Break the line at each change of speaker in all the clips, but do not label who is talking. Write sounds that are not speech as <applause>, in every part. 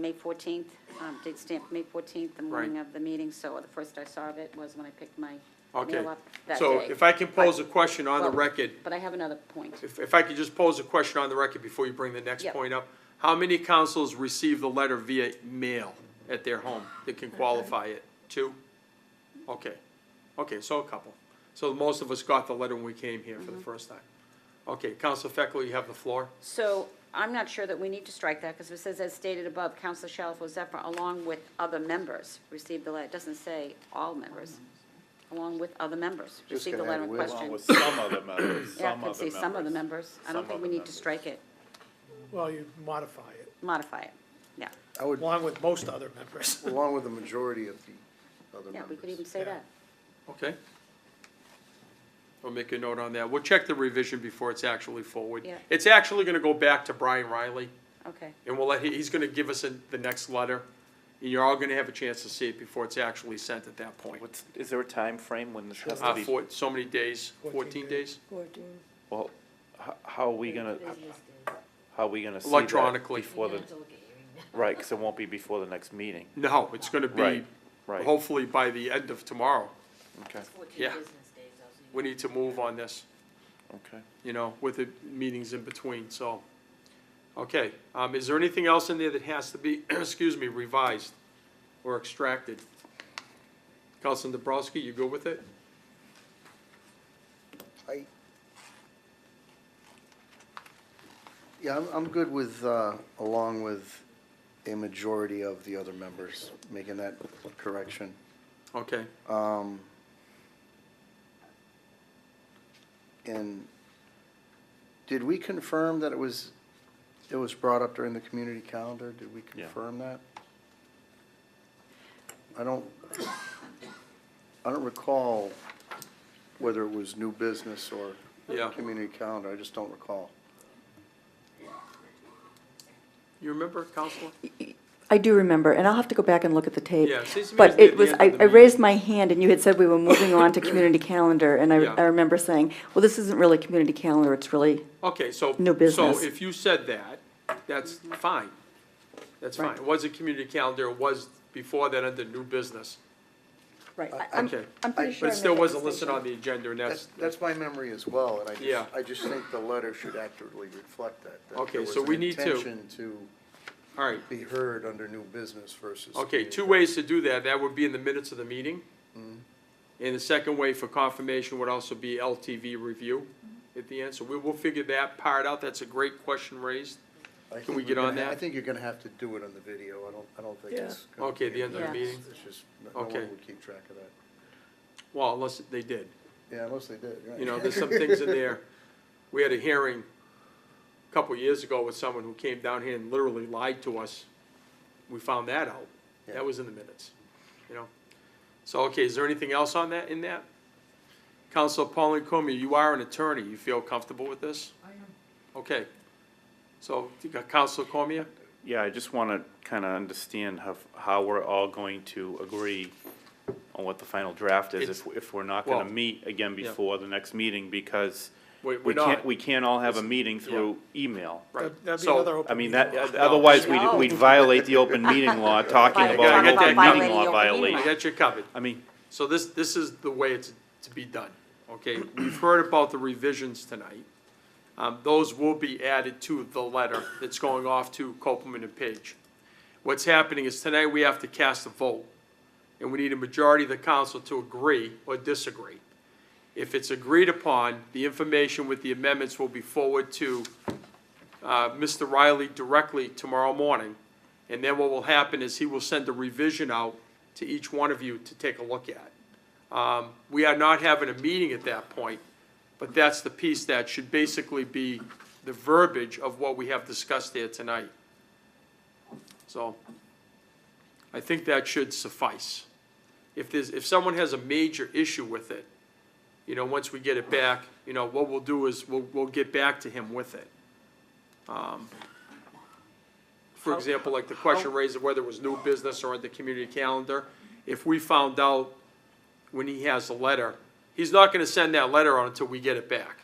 May 14th, um, date stamped May 14th, the morning of the meeting, so the first I saw of it was when I picked my
Okay,
mail up that
so
day.
if I can pose a question on the
Well-
record,
But I have another point.
if, if I could just pose a question on the record before you bring the next
Yep.
point up. How many councils received the letter via mail at their home that can qualify it? Two? Okay, okay, so a couple. So most of us got the letter when we came here for
Mm-hmm.
the first time. Okay, Council Feckley, you have the floor.
So I'm not sure that we need to strike that, because it says, as stated above, Counselor Shalfo Zephyr, along with other members, received the letter. It doesn't say all members, along with other members,
Just
received the
gonna add
letter in
with.
question.
Along
With some other members,
Yeah,
some
I could
other
say some of the members. I don't
Some
think
of
we
the
need to
members.
strike it,
Well, you modify it,
modify it, yeah.
I would,
along with most other members.
along with the majority of the other
Yeah, we could even
members.
say
Yeah.
that.
Okay. I'll make a note on that. We'll check the revision before it's actually forward.
Yeah.
It's actually gonna go back to Brian Riley.
Okay,
And we'll let, he- he's gonna give us a- the next letter, and you're all gonna have a chance to see it before it's actually sent at that point.
What's, is there a time frame when this has to
Uh,
be,
for, so many days,
14
fourteen days?
well, how, how are we gonna, how are we gonna see that?
Electronically.
Before the, right, cause it won't be before the next meeting,
No, it's gonna be,
Right, right.
hopefully by the end of tomorrow.
okay,
Yeah. We need to move on this,
okay.
you know, with the meetings in between, so. Okay, um, is there anything else in there that has to be, <clears throat> excuse me, revised or extracted? Councilman Dabrowski, you good with it?
I- Yeah, I'm, I'm good with, uh, along with a majority of the other members, making that correction.
Okay,
Um, and did we confirm that it was, it was brought up during the community calendar? Did we
Yeah.
confirm that? I don't, I don't recall whether it was new business or
Yeah.
community calendar. I just don't recall.
you remember, Counselor?
I do remember, and I'll have to go back and look at the tape.
Yeah, it seems to me it's
But
near
it
the
was,
end
I,
of the
I
meeting.
raised my hand, and you had said we were moving
<coughs>
on to community calendar, and I,
Yeah.
I remember saying, well, this isn't really community calendar, it's really,
Okay, so.
No business.
So if you said that, that's fine. That's fine.
Right.
It was a community calendar, it was before that under new business.
right. I- I'm-
Okay.
I'm pretty sure.
But
I
it still
made that
wasn't listed
distinction.
on the agenda, and
That's,
that's,
that's my memory as well, and I
Yeah.
just, I just think the letter should accurately reflect that. that there
Okay,
was
so
an
we need to-
Intention to
all right.
be heard under new business versus.
Okay, two
community.
ways to do that. That would be in the minutes of the meeting. And the second way for confirmation would also be LTV review at the end. So we will figure that part out. That's a great question raised.
I
Can
think
we
we're
get on
gonna ha-
that?
I think you're gonna have to do it on the video, I don't, I don't think
Yeah.
it's. gonna
Okay, the
be in
end of
the
minutes.
meeting.
It's just, no no
Okay.
one would keep track of that.
Well, unless they did.
Yeah, unless they did, right.
You know, there's some things in there. We had a hearing a couple years ago with someone who came down here and literally lied to us. We found that out.
Yeah.
That was in the minutes, you know? So, okay, is there anything else on that, in that? Counsel Pauline Cormier, you are an attorney. You feel comfortable with this? I am. Okay. So, you got Counsel Cormier?
Yeah, I just wanna kinda understand how, how we're all going to agree on what the final draft is, if, if we're not gonna
Well,
meet again
yeah.
before the next meeting, because
We-
we
We're
can't,
not,
we can't all have a meeting through email.
right.
That'd be
So,
another open
I mean,
meeting
that, uh,
law.
otherwise, we'd,
No.
we'd violate the open meeting law, talking
Violate-
about
talking
an open
about
violating the open
meeting law
meeting
I
violation.
law.
got you covered.
I mean,
So this, this is the way it's to be done, okay? We've heard about the revisions tonight. Um, those will be added to the letter that's going off to Copeland and Page. What's happening is tonight we have to cast a vote, and we need a majority of the council to agree or disagree. If it's agreed upon, the information with the amendments will be forwarded to, uh, Mr. Riley directly tomorrow morning. And then what will happen is he will send a revision out to each one of you to take a look at. Um, We are not having a meeting at that point, but that's the piece that should basically be the verbiage of what we have discussed there tonight. So I think that should suffice. If there's, if someone has a major issue with it, you know, once we get it back, you know, what we'll do is we'll, we'll get back to him with it. Um, For example, like the question raised of whether it was new business or the community calendar, if we found out when he has the letter, he's not gonna send that letter out until we get it back.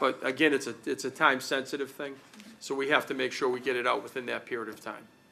But again, it's a, it's a time-sensitive thing, so we have to make sure we get it out within that period of time.